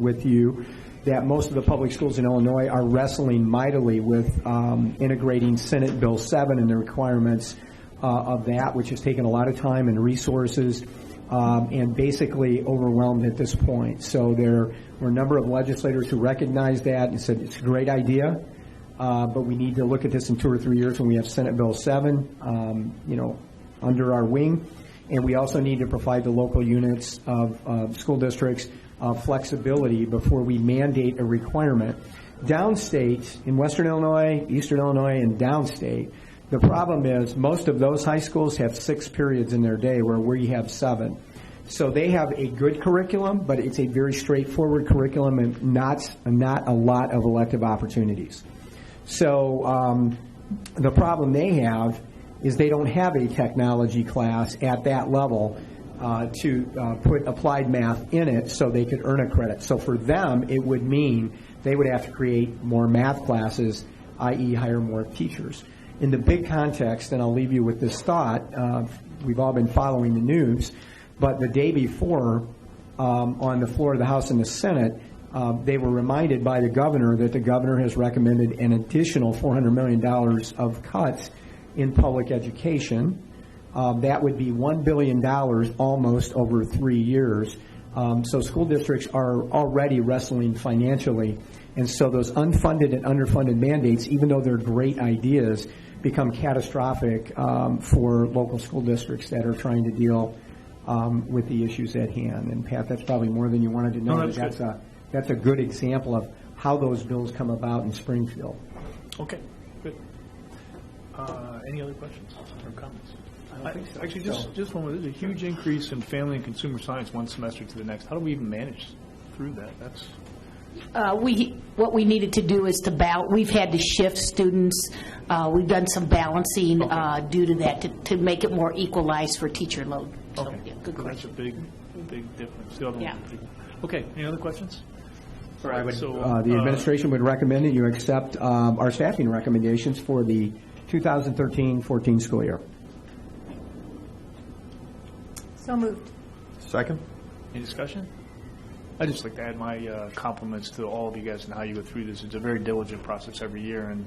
with you that most of the public schools in Illinois are wrestling mightily with um, integrating Senate Bill 7 and the requirements uh, of that, which has taken a lot of time and resources um, and basically overwhelmed at this point. So there were a number of legislators who recognized that and said, it's a great idea, uh, but we need to look at this in two or three years when we have Senate Bill 7, um, you know, under our wing. And we also need to provide the local units of uh, school districts uh, flexibility before we mandate a requirement. Downstate, in western Illinois, eastern Illinois, and downstate, the problem is, most of those high schools have six periods in their day where we have seven. So they have a good curriculum, but it's a very straightforward curriculum and not, not a lot of elective opportunities. So um, the problem they have is they don't have a technology class at that level uh, to uh, put applied math in it so they could earn a credit. So for them, it would mean they would have to create more math classes, i.e. hire more teachers. In the big context, and I'll leave you with this thought, uh, we've all been following the news, but the day before, um, on the floor of the House and the Senate, uh, they were reminded by the governor that the governor has recommended an additional $400 million of cuts in public education. Um, That would be $1 billion almost over three years. Um, So school districts are already wrestling financially, and so those unfunded and underfunded mandates, even though they're great ideas, become catastrophic um, for local school districts that are trying to deal um, with the issues at hand. And Pat, that's probably more than you wanted to know. No, that's but a That's a good example of how those bills come about in Springfield. Okay, good. Uh, Any other questions or comments? I don't think so. Actually, just, just one, more. there's a huge increase in family and consumer science one semester to the next. How do we even manage through that? That's, Uh, We, what we needed to do is to bal, we've had to shift students, Uh, we've done some balancing uh, due to that, to to make it more equalized for teacher load. So, okay. yeah, Good So That's a question. big, big difference. The other one- Yeah. Okay, any other questions? Sir, I would, So, uh, the uh, administration would recommend that you accept um, our staffing recommendations for the 2013-14 school year. So moved. Second? Any discussion? I'd just like to add my uh, compliments to all of you guys and how you go through this. It's a very diligent process every year, and,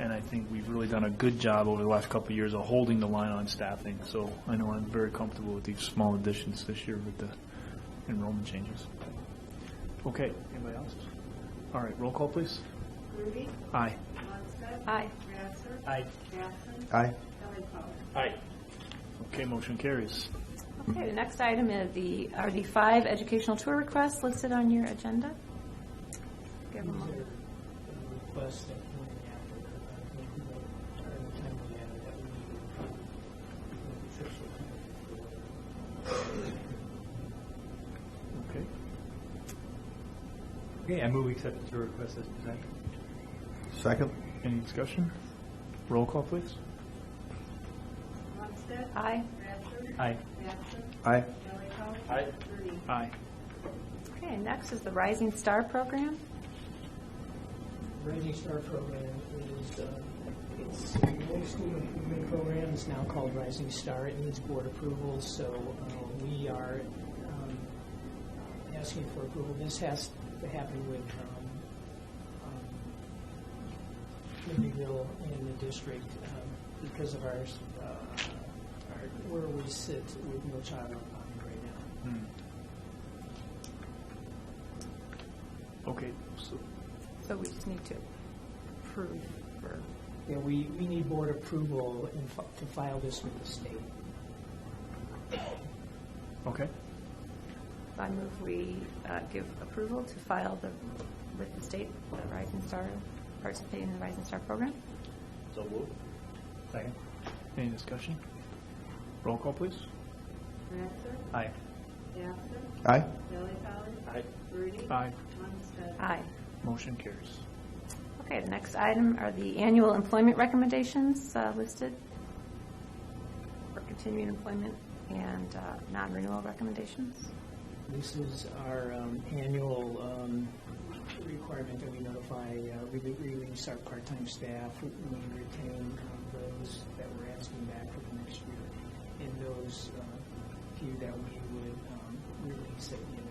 and I think we've really done a good job over the last couple of years of holding the line on staffing. So I know I'm very comfortable with these small additions this year with the enrollment changes. Okay, anybody else? All right, roll call, please. Rudy. Aye. Lundstedt. Aye. Rasser. Aye. Jackson. Aye. Kelly Power. Aye. Okay, motion carries. Okay, the next item is the, are the five educational tour requests listed on your agenda? Give them all. request that we after, uh, we will, during the time we have, that we need to, trips will come for Okay. Okay, I move acceptance of request as presented. Second? Any discussion? Roll call, please. Lundstedt. Aye. Rasser. Aye. Jackson. Aye. Kelly Power. Aye. Rudy. Aye. Okay, next is the Rising Star Program. Rising Star program is, uh, it's a local school improvement program, it's now called Rising Star, it needs board approval, so uh, we are um, asking for approval. This has to happen with um, um, Libertyville and the district um, because of our, uh, our- where we sit with no child left behind right now. Okay, so So we just need to approve for, Yeah, we, we need board approval and fi- to file this with the state. Okay. I move we uh, give approval to file the, with the state, the Rising Star, participate in the Rising Star Program. Second. Any discussion? Roll call, please. Rasser. Aye. Jackson. Aye. Kelly Power. Aye. Rudy. Aye. Lundstedt. Aye. Motion carries. Okay, the next item are the annual employment recommendations uh, listed for continuing employment and uh, non-renewal recommendations. This is our um, annual um, requirement that we notify, uh, we do- we release our part-time staff, we retain um, those that we're asking back for the next year, and those uh, few that we would um, release at the end